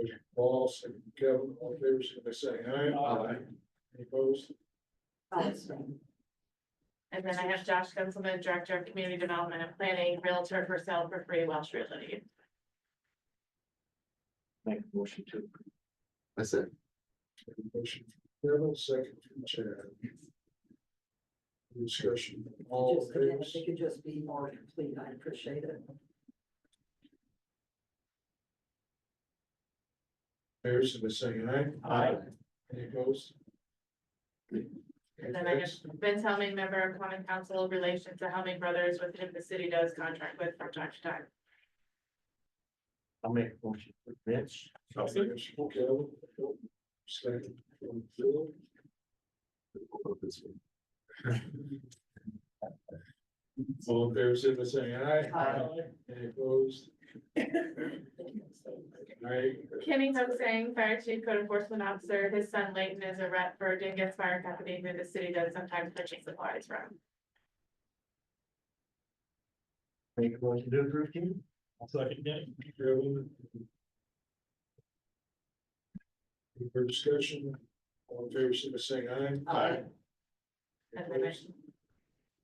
Motion Paul, second Kevin, all in favor, signify by saying aye. Aye. Any opposed? And then I have Josh Gunselman, Director of Community Development and Planning, Realtor for Sale for Free Welsh Realty. Make a motion to. That's it. Motion from Kevin, second from Chad. Discussion, all Just in again, favor, if they could just be more complete, I appreciate it. favor, signify by saying aye. Aye. Any opposed? And then I have Vince Helming, Member of Common Council, Relation to Helming Brothers, with whom the city does contract with from time to time. I'll make a motion for Mitch. Motion from Kevin, second from Phil. All in favor, signify by saying aye. Aye. Any opposed? Aye. Kenny Hoaxing, Fire Chief Code Enforcement Officer, his son Layton is a rep for Dingus Fire Company, who the city does sometimes purchase supplies from. Make a motion to approve him. Second Kevin. Any further discussion? All in favor, signify by saying aye. Aye. Any And then I- opposed?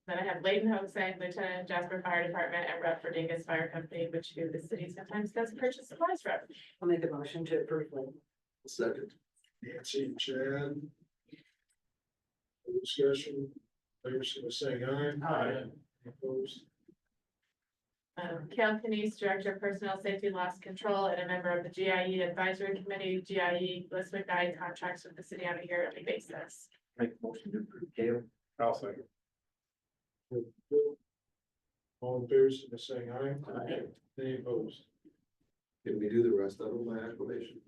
Then I have Layton Hoaxing, Lieutenant Jasper Fire Department, and rep for Dingus Fire Company, which who the city sometimes does purchase supplies from. I'll make a motion to approve. Lynn. Second. Nancy and Chad. Any Discussion, favor signify by saying aye. Aye. Any Opposed? Um, Cal Canese, Director of Personnel Safety Loss Control and a member of the GIE Advisory Committee, GIE, Bliss McDye contracts with the city on a yearly basis. Make a motion to approve Dale. I'll second. All in favor, signify by saying aye. Aye. Any opposed? Can we do the rest of them by acclamation?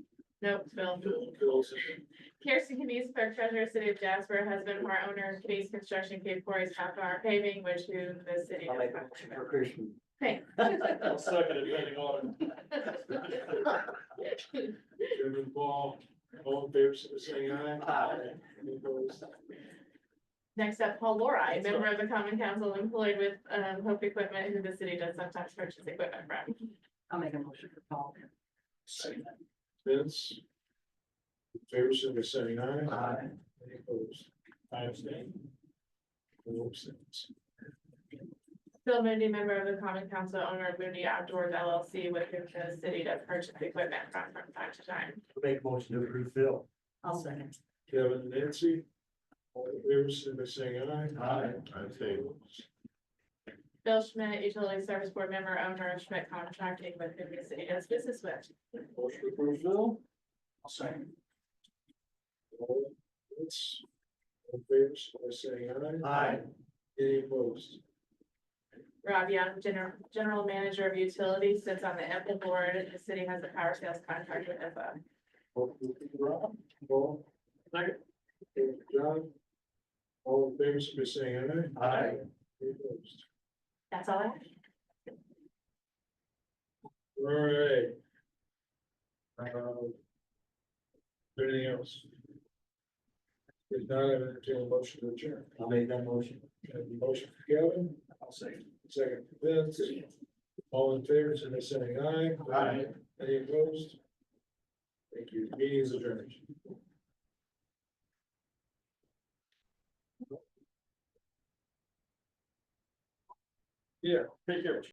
Nope, Phil. Phil, second. Kirsten Canese, Clerk Treasurer, City of Jasper, husband of our owner, Canese Construction, Cape Corey's Half Hour Paving, which who the city. I'll make does a motion for contract Christian. with. Chairman Paul, all in favor, signify by saying aye. Aye. Any opposed? Next up, Paul Lori, member of the Common Council employed with, um, Hope Equipment, who the city does sometimes purchase equipment from. I'll make a motion for Paul. Vince. in Favor, signify by saying aye. Aye. Any opposed? I abstain. Phil abstains. Bill Moody, member of the Common Council, owner of Moody Outdoors LLC, with whom the city does purchase equipment from, from time to time. Make a motion to approve Phil. I'll second. Kevin and Nancy. All in favor, signify by saying aye. Aye. I abstain. Bill Schmidt, utility service board member, owner of Schmidt Contracting, with whom the city does business with. Motion to approve Phil. I'll second. All Vince. All in favor, signify by saying aye. Aye. Any opposed? Rob Young, general, general manager of utilities, sits on the EPA board. The city has a power sales contract with EPA. Rob, Paul. Second. Okay, John. All in favor, signify by saying aye. Aye. Any opposed? That's all I have. All right. Um, Anything else? If not, I entertain a motion to adjourn. I'll make that motion. Have a Motion for Kevin, I'll second. second for Vince. All in favor, so they're saying aye. Aye. Any opposed? Thank you. Meeting is adjourned. Yeah, take care.